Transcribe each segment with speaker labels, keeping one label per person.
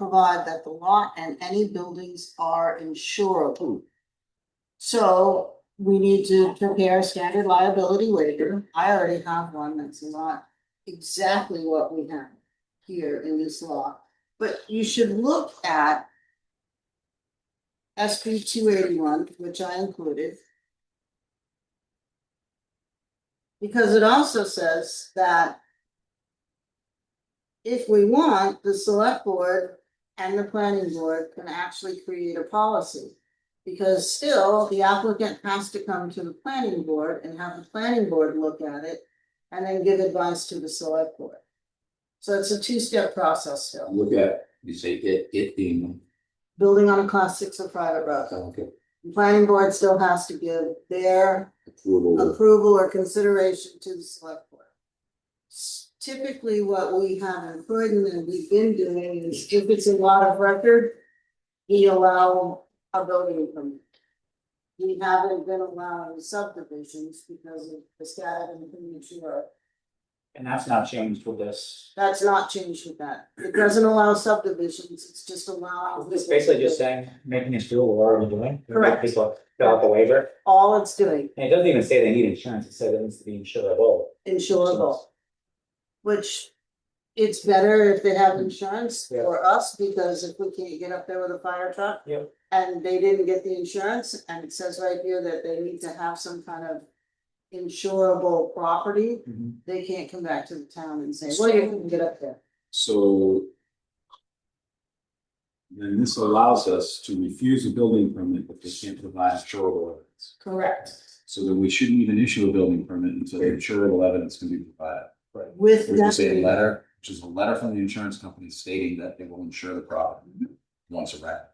Speaker 1: provide that the lot and any buildings are insurable. So we need to prepare a standard liability waiver. I already have one that's not exactly what we have here in this law. But you should look at SB two eighty-one, which I included. Because it also says that if we want, the select board and the planning board can actually create a policy. Because still, the applicant has to come to the planning board and have the planning board look at it and then give advice to the select board. So it's a two-step process still,
Speaker 2: Look at, you say it, it being,
Speaker 1: building on a class six or private road.
Speaker 2: okay,
Speaker 1: The planning board still has to give their
Speaker 2: approval,
Speaker 1: approval or consideration to the select board. S- Typically, what we have in Croydon and we've been doing is if it's a lot of record, we allow a building permit. We haven't been allowing subdivisions because of the status of the premature.
Speaker 3: And that's not changed with this.
Speaker 1: That's not changed with that. It doesn't allow subdivisions, it's just allowing.
Speaker 3: It's basically just saying, making us do what we're already doing.
Speaker 1: Correct.
Speaker 3: People fill out the waiver,
Speaker 1: All it's doing,
Speaker 3: and it doesn't even say they need insurance, it says it needs to be insurable.
Speaker 1: insurable. Which it's better if they have insurance
Speaker 3: Yeah.
Speaker 1: for us, because if we can't get up there with a fire truck.
Speaker 3: Yep.
Speaker 1: And they didn't get the insurance, and it says right here that they need to have some kind of insurable property,
Speaker 3: Mhm.
Speaker 1: they can't come back to the town and say, well, you couldn't get up there.
Speaker 4: So. Then this allows us to refuse a building permit if they can't provide insurable evidence.
Speaker 1: Correct.
Speaker 4: So then we shouldn't even issue a building permit until the insurable evidence can be provided.
Speaker 1: With
Speaker 4: We just say a
Speaker 1: that,
Speaker 4: letter, which is a letter from the insurance company stating that they will insure the property once a wreck.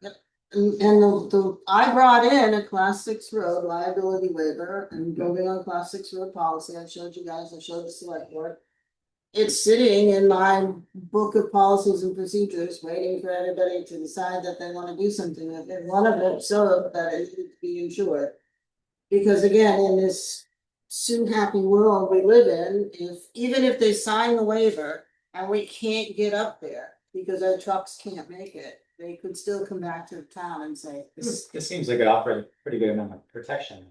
Speaker 1: and and the, the, I brought in a class six road liability waiver and building on class six road policy, I showed you guys, I showed the select board. it's sitting in my book of policies and procedures, waiting for everybody to decide that they wanna do something with it, one of them, so that it needs to be insured. Because again, in this soon happy world we live in, if, even if they sign the waiver and we can't get up there because our trucks can't make it, they could still come back to the town and say, "Hmm,
Speaker 3: This, this seems like it offers a pretty good amount of protection.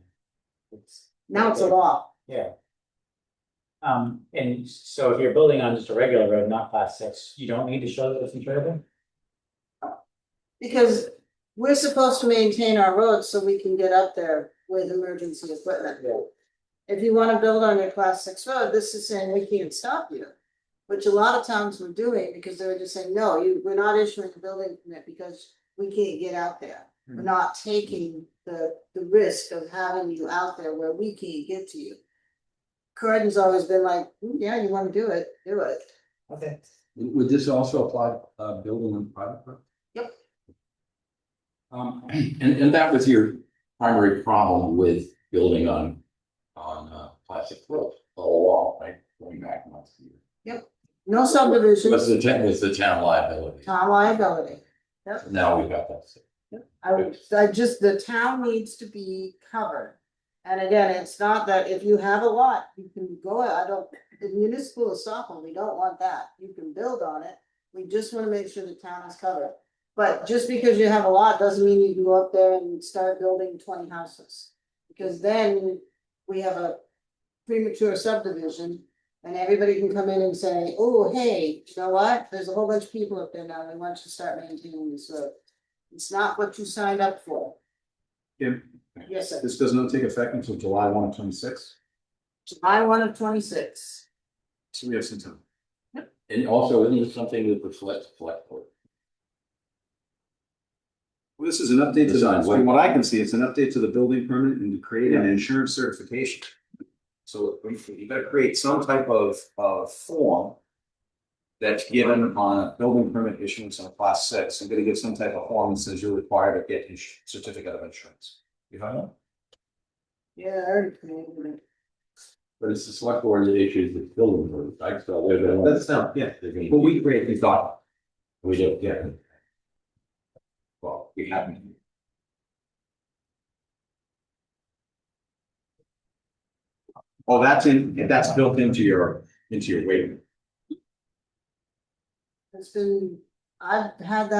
Speaker 3: It's-
Speaker 1: now it's a law.
Speaker 3: Yeah. Um, and so if you're building on just a regular road, not class six, you don't need to show that it's insurable?
Speaker 1: Because we're supposed to maintain our roads so we can get up there with emergency equipment.
Speaker 3: Yeah.
Speaker 1: If you wanna build on your class six road, this is saying we can't stop you. Which a lot of towns were doing because they were just saying, no, you, we're not issuing a building permit because we can't get out there. We're not taking the, the risk of having you out there where we can't get to you. Croydon's always been like, "Mm, yeah, you wanna do it, do it.
Speaker 3: Okay.
Speaker 4: Would would this also apply, uh, building on private property?
Speaker 1: Yep.
Speaker 4: Um,
Speaker 2: and, and that was your primary problem with building on, on, uh, plastic roof all along, right? Going back months a year.
Speaker 1: No subdivisions,
Speaker 2: Was the town, was the town liability,
Speaker 1: town liability.
Speaker 2: now we've got that.
Speaker 1: I would, I just, the town needs to be covered. And again, it's not that if you have a lot, you can go, out. I don't, the municipal is Stockholm, we don't want that, you can build on it. We just wanna make sure the town is covered. But just because you have a lot doesn't mean you can go up there and start building twenty houses. Because then we have a premature subdivision. And everybody can come in and say, oh, hey, you know what, there's a whole bunch of people up there now, they want you to start maintaining this road. It's not what you signed up for.
Speaker 4: Kim?
Speaker 1: Yes, sir.
Speaker 4: This does not take effect until July one, twenty six,
Speaker 1: July one of twenty-six.
Speaker 4: so we have some time.
Speaker 2: And also, isn't it something that reflects, reflect,
Speaker 4: Well, this is an update to,
Speaker 2: This
Speaker 4: the-
Speaker 2: is-
Speaker 4: from what I can see, it's an update to the building permit and to create an insurance certification. So you- you gotta create some type of, of form that's given on a building permit issuance on a class six, I'm gonna give some type of form that says you're required to get a certificate of insurance. You have that?
Speaker 1: Yeah, I already created it.
Speaker 2: but it's the select board that issues the building permit, right? So they're the ones.
Speaker 4: That's not, yeah,
Speaker 2: they're gonna-
Speaker 4: but we create these documents,
Speaker 2: We do, yeah.
Speaker 4: yeah. Well, we haven't. Oh, that's in, that's built into your, into your waiver.
Speaker 1: It's been, I've had that